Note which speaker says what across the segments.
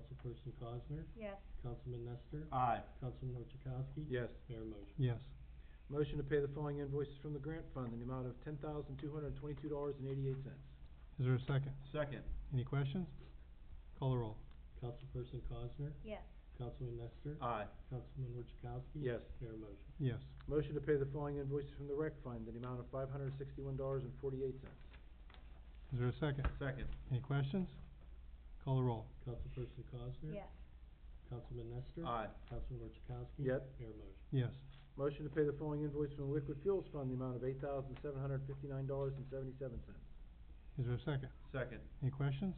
Speaker 1: Councilperson Cosner,
Speaker 2: Yes.
Speaker 1: Councilman Nestor,
Speaker 3: Aye.
Speaker 1: Councilman Orchakowski.
Speaker 3: Yes.
Speaker 1: Mayor motion.
Speaker 4: yes,
Speaker 3: Motion to pay the following invoices from the grant fund in the amount of ten thousand two hundred twenty-two dollars and eighty-eight cents.
Speaker 4: is there a second?
Speaker 3: Second.
Speaker 4: Any questions? Call the roll.
Speaker 1: Councilperson Cosner,
Speaker 2: Yes.
Speaker 1: Councilman Nestor,
Speaker 3: Aye.
Speaker 1: Councilman Orchakowski.
Speaker 3: Yes.
Speaker 1: Mayor motion.
Speaker 4: Yes,
Speaker 3: Motion to pay the following invoices from the rec fund in the amount of five hundred sixty-one dollars and forty-eight cents.
Speaker 4: is there a second?
Speaker 3: Second.
Speaker 4: Any questions? Call the roll.
Speaker 1: Councilperson Cosner.
Speaker 2: Yes.
Speaker 1: Councilman Nestor.
Speaker 3: Aye.
Speaker 1: Councilman Orchakowski.
Speaker 3: Yep.
Speaker 1: Mayor motion.
Speaker 4: Yes,
Speaker 3: Motion to pay the following invoice from the liquid fuels fund in the amount of eight thousand seven hundred fifty-nine dollars and seventy-seven cents.
Speaker 4: is there a second?
Speaker 3: Second.
Speaker 4: Any questions?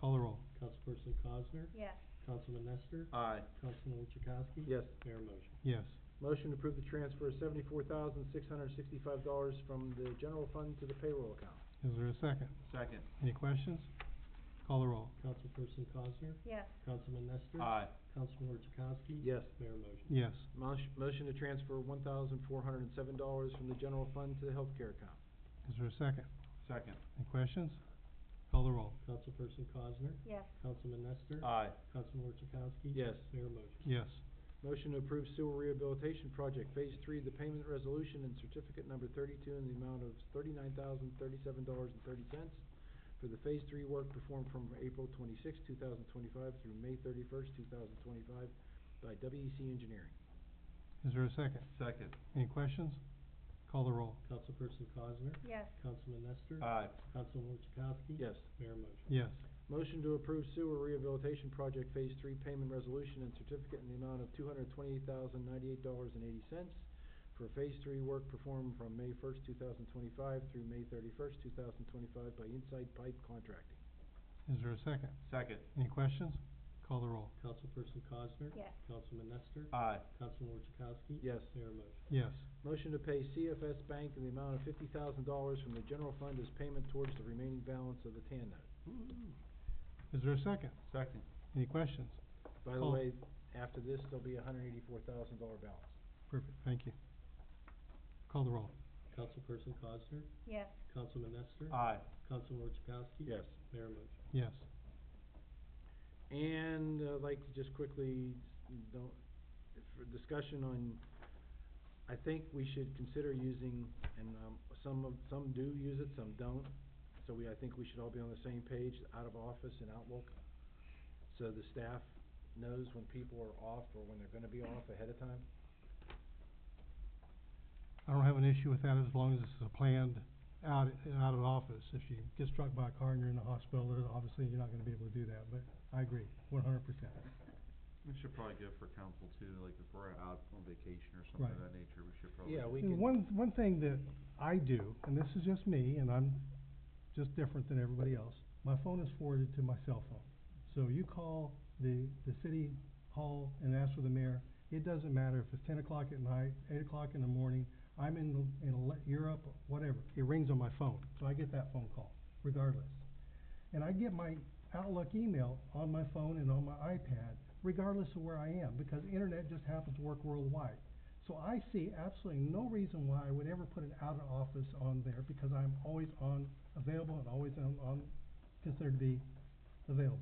Speaker 4: Call the roll.
Speaker 1: Councilperson Cosner,
Speaker 2: Yes.
Speaker 1: Councilman Nestor,
Speaker 3: Aye.
Speaker 1: Councilman Orchakowski.
Speaker 3: Yes.
Speaker 1: Mayor motion.
Speaker 4: Yes,
Speaker 3: Motion to approve the transfer of seventy-four thousand six hundred sixty-five dollars from the general fund to the payroll account.
Speaker 4: is there a second?
Speaker 3: Second.
Speaker 4: Any questions? Call the roll.
Speaker 1: Councilperson Cosner,
Speaker 2: Yes.
Speaker 1: Councilman Nestor. Councilman Orchakowski.
Speaker 3: Yes.
Speaker 1: Mayor motion.
Speaker 4: Yes,
Speaker 3: Motion, motion to transfer one thousand four hundred and seven dollars from the general fund to the healthcare account.
Speaker 4: is there a second?
Speaker 3: Second.
Speaker 4: Any questions? Call the roll.
Speaker 1: Councilperson Cosner,
Speaker 2: Yes.
Speaker 1: Councilman Nestor.
Speaker 3: Aye.
Speaker 1: Councilman Orchakowski.
Speaker 3: Yes.
Speaker 1: Mayor motion.
Speaker 4: Yes,
Speaker 3: Motion to approve sewer rehabilitation project phase three, the payment resolution and certificate number thirty-two in the amount of thirty-nine thousand thirty-seven dollars and thirty cents for the phase three work performed from April twenty-sixth, two thousand twenty-five through May thirty-first, two thousand twenty-five by WEC Engineering.
Speaker 4: is there a second?
Speaker 3: Second.
Speaker 4: Any questions? Call the roll.
Speaker 1: Councilperson Cosner,
Speaker 2: Yes.
Speaker 1: Councilman Nestor.
Speaker 3: Aye.
Speaker 1: Councilman Orchakowski.
Speaker 3: Yes.
Speaker 1: Mayor motion.
Speaker 4: Yes,
Speaker 3: Motion to approve sewer rehabilitation project phase three payment resolution and certificate in the amount of two hundred twenty-eight thousand ninety-eight dollars and eighty cents for phase three work performed from May first, two thousand twenty-five through May thirty-first, two thousand twenty-five by Inside Pipe Contracting.
Speaker 4: is there a second?
Speaker 3: Second.
Speaker 4: Any questions? Call the roll.
Speaker 1: Councilperson Cosner.
Speaker 2: Yes.
Speaker 1: Councilman Nestor.
Speaker 3: Aye.
Speaker 1: Councilman Orchakowski.
Speaker 3: Yes.
Speaker 1: Mayor motion.
Speaker 4: Yes,
Speaker 3: Motion to pay CFS Bank in the amount of fifty thousand dollars from the general fund as payment towards the remaining balance of the TAN note.
Speaker 4: is there a second?
Speaker 3: Second.
Speaker 4: Any questions?
Speaker 3: By the
Speaker 4: Call-
Speaker 3: way, after this, there'll be a hundred eighty-four thousand dollar balance.
Speaker 4: Perfect, thank you. Call the roll.
Speaker 1: Councilperson Cosner,
Speaker 2: Yes.
Speaker 1: Councilman Nestor.
Speaker 3: Aye.
Speaker 1: Councilman Orchakowski.
Speaker 3: Yes.
Speaker 1: Mayor motion.
Speaker 4: Yes,
Speaker 3: And uh, I'd like to just quickly, don't, for discussion on, I think we should consider using, and, um, some of, some do use it, some don't. So we, I think we should all be on the same page, out of office and outlook. So the staff knows when people are off or when they're gonna be off ahead of time.
Speaker 4: I don't have an issue with that as long as it's a planned out, out of office. If you get struck by a car and you're in the hospital, then obviously you're not gonna be able to do that, but I agree, one hundred percent.
Speaker 5: We should probably go for council too, like if we're out on vacation or something of
Speaker 4: Right.
Speaker 5: that nature, we should probably.
Speaker 3: Yeah, we
Speaker 4: And
Speaker 3: can.
Speaker 4: One, one thing that I do, and this is just me, and I'm just different than everybody else, my phone is forwarded to my cell phone. So you call the, the city hall and ask for the mayor, it doesn't matter if it's ten o'clock at night, eight o'clock in the morning, I'm in, the- in Ale- Europe, whatever, it rings on my phone, so I get that phone call, regardless. And I get my Outlook email on my phone and on my iPad, regardless of where I am, because the internet just happens to work worldwide. So I see absolutely no reason why I would ever put an out of office on there because I'm always on, available and always on, on, considered to be available.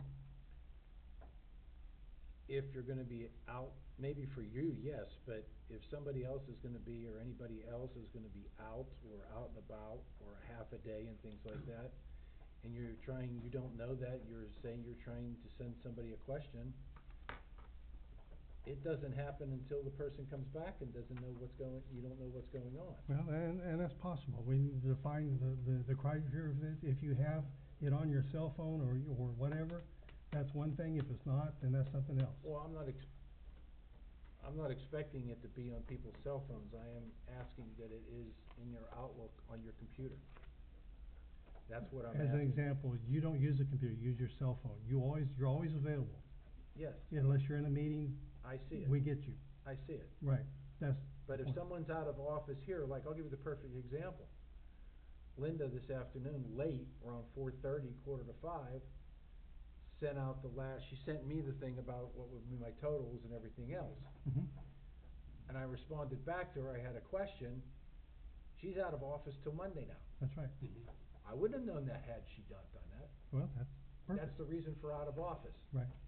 Speaker 3: if you're gonna be out, maybe for you, yes, but if somebody else is gonna be, or anybody else is gonna be out, or out and about, or half a day and things like that, and you're trying, you don't know that, you're saying you're trying to send somebody a question, it doesn't happen until the person comes back and doesn't know what's going, you don't know what's going on.
Speaker 4: Well, and, and that's possible. We need to define the, the, the criteria of it. If you have it on your cell phone or, y- or whatever, that's one thing. If it's not, then that's something else.
Speaker 3: Well, I'm not ex- I'm not expecting it to be on people's cell phones, I am asking that it is in your Outlook on your computer. That's what I'm
Speaker 4: As an
Speaker 3: asking.
Speaker 4: example, you don't use a computer, you use your cell phone. You always, you're always available.
Speaker 3: Yes,
Speaker 4: Unless you're in a meeting,
Speaker 3: I see it,
Speaker 4: we get you.
Speaker 3: I see it.
Speaker 4: Right, that's,
Speaker 3: But if
Speaker 4: Point.
Speaker 3: someone's out of office here, like, I'll give you the perfect example. Linda this afternoon, late, around four thirty, quarter to five, sent out the last, she sent me the thing about what would be my totals and everything else.
Speaker 4: mhm,
Speaker 3: And I responded back to her, I had a question, she's out of office till Monday now.
Speaker 4: that's right.
Speaker 3: I wouldn't have known that had she not done that.
Speaker 4: Well, that's perfect.
Speaker 3: That's the reason for out of office.
Speaker 4: Right,